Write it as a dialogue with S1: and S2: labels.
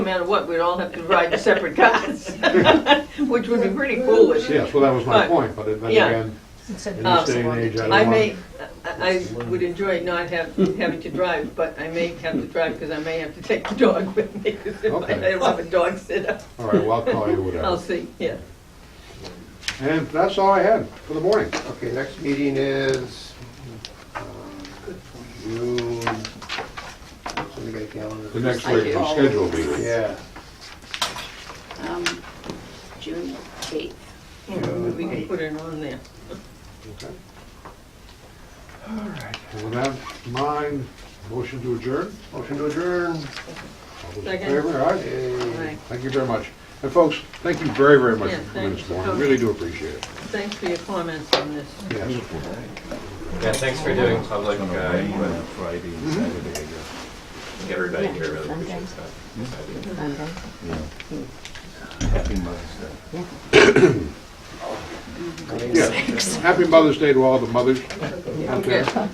S1: matter what, we'd all have to ride separate cars, which would be pretty foolish.
S2: Yes, well, that was my
S1: But-
S2: point, but then
S1: yeah.
S2: again,
S3: It's a-
S2: in
S1: Uh,
S2: this day and age, I
S1: I
S2: don't
S1: may,
S2: want,
S1: I I would enjoy not have, having to drive, but I may have to drive because I may have to take the dog with me because if I I
S2: Okay.
S1: don't have a dog sitter,
S2: all right, well, I'll call you
S1: I'll
S2: whatever.
S1: see, yeah.
S2: And that's all I had for the morning.
S4: Okay, next meeting is um, June, somebody got a calendar?
S2: The next
S5: I do.
S2: regular scheduled meeting.
S4: Yeah,
S5: um, June 8th.
S1: You know, We can put it on there.
S2: Okay. All right, with that in mind, motion to adjourn?
S4: motion to adjourn.
S2: All those in
S1: Second.
S2: favor? Aye.
S4: Yay.
S1: Right.
S2: Thank you very much. And folks, thank you very, very much
S1: Yeah,
S2: for coming this
S1: thanks.
S2: morning. Really do appreciate it.
S1: Thanks for your comments on this.
S2: Yes.
S6: Yeah, thanks for doing public, uh, input.
S7: Friday and Saturday, I guess.
S6: everybody here really appreciates that.
S7: Happy Mother's Day.
S2: Yeah. Happy Mother's Day to all the mothers out there.
S1: Okay.